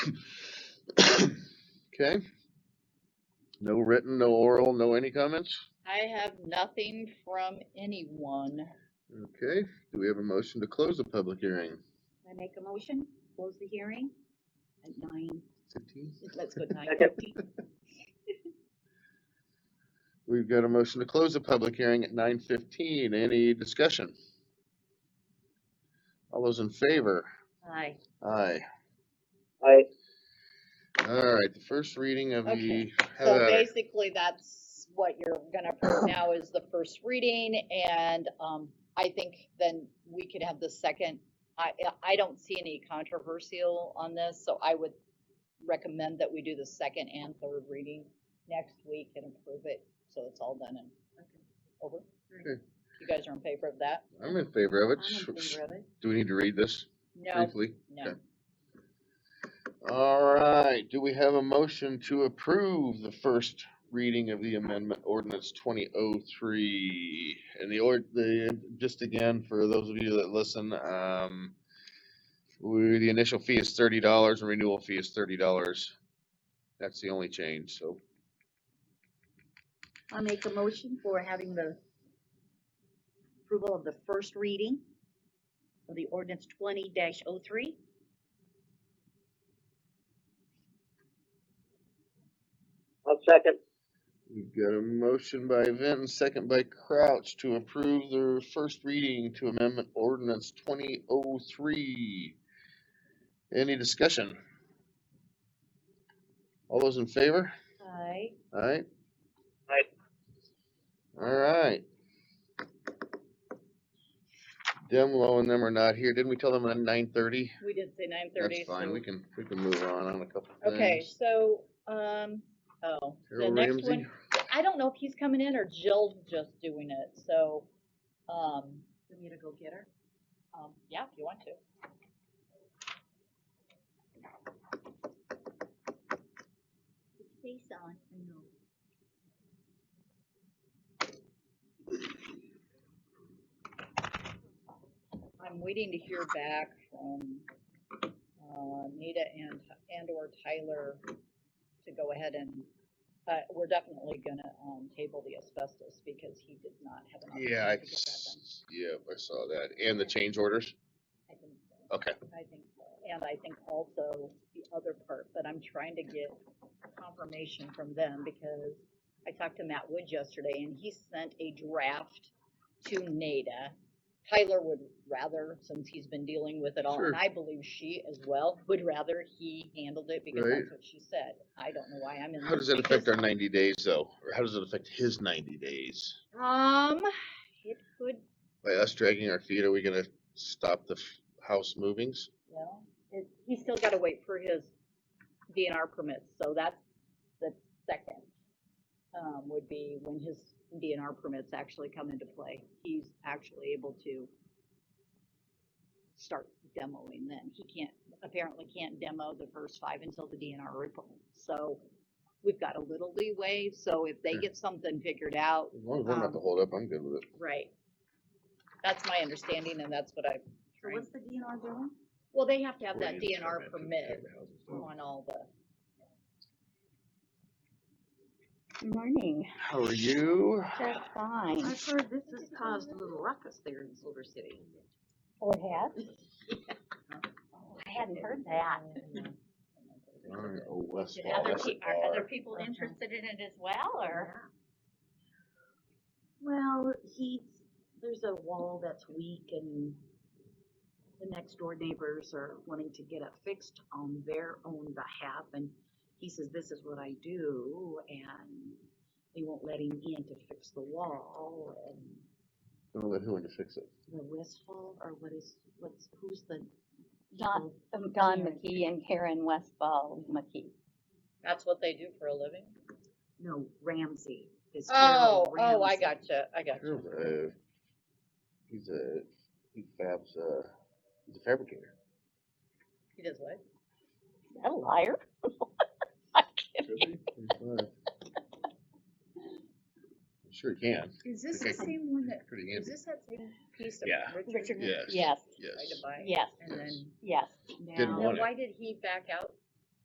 Okay, no written, no oral, no any comments? I have nothing from anyone. Okay, do we have a motion to close the public hearing? I make a motion, close the hearing at nine, Fifteen? let's go nine Second. fifteen. We've got a motion to close the public hearing at nine fifteen. Any discussion? All those in favor? Aye. Aye. I, All right, the first reading of the, Okay, how So about it? basically, that's what you're gonna approve now is the first reading, and, um, I think then we could have the second. I, I don't see any controversial on this, so I would recommend that we do the second and third reading next week and approve it, so it's all done and over. Okay. You guys are in favor of that? I'm in favor of it. I'm in favor of it. Do we need to read this No, briefly? no. All right, do we have a motion to approve the first reading of the amendment ordinance twenty oh three? And the ord, the, just again, for those of you that listen, um, we, the initial fee is thirty dollars and renewal fee is thirty dollars. That's the only change, so I'll make a motion for having the approval of the first reading of the ordinance twenty dash oh three. I'll second. we've got a motion by Vinton, second by Crouch to approve the first reading to amendment ordinance twenty oh three. Any discussion? All those in favor? Aye. Alright? Aye. Alright. Demlo and them are not here, didn't we tell them at nine thirty? we did say nine thirty. That's fine, we can, we can move on on a couple things. Okay, so, um, oh, the Harold next Ramsey, one, I don't know if he's coming in or Jill's just doing it, so, um, Want me to go get her? um, yeah, if you want to. Put your Face on, I know. I'm waiting to hear back from, uh, Nita and, and or Tyler to go ahead and, uh, we're definitely gonna, um, table the asbestos because he did not have an yeah, I, opportunity to get that done. s- yeah, I saw that, and the change orders, I think so. okay, I think so, and I think also the other part, but I'm trying to get confirmation from them because I talked to Matt Wood yesterday and he sent a draft to NADA. Tyler would rather, since he's been dealing with it all, Sure. and I believe she as well, would rather he handled it because Right. that's what she said. I don't know why I'm in. how does this that affect because- our ninety days though, or how does it affect his ninety days? Um, it could, By us dragging our feet, are we gonna stop the f- house movings? well, it, he's still gotta wait for his DNR permits, so that's the second. Um, would be when his DNR permits actually come into play, he's actually able to start demoing then, he can't, apparently can't demo the first five until the DNR report, so we've got a little leeway, so if they Sure. get something figured out, As long as I'm not the Um, holdup, I'm good with it. right. That's my understanding and that's what I, So what's the DNR doing? well, they have to have Or that you just DNR amend it to permit protect the houses, so- on all the. Morning, How are you? just fine. I've heard this has caused a little ruckus there in Silver City. Oh, it has? I hadn't heard that. Darn, Oh, West Did Wall, other that's a pe- are other bar. people interested in it as well, or? Well, he's, there's a wall that's weak and the next door neighbors are wanting to get it fixed on their own behalf and he says, this is what I do and they won't let him in to fix the wall and Don't let who in to fix it. the wistful or what is, what's, who's the? Uh, Don, um, Don Karen. McKee and Karen Westfall McKee. That's what they do for a living? No, Ramsey. is Carol Oh, oh, I Ramsey. gotcha, I gotcha. Carol's a- He's a, he fabs, uh, he's a fabricator. He does what? Is that a liar? I'm Sure he can, Is this the Okay. same one that pretty handy, this that same piece of Yeah. Richard? yes, Yes, yes. Tried to buy it, yes, And then, yes. Didn't Now, want now it. why did he back out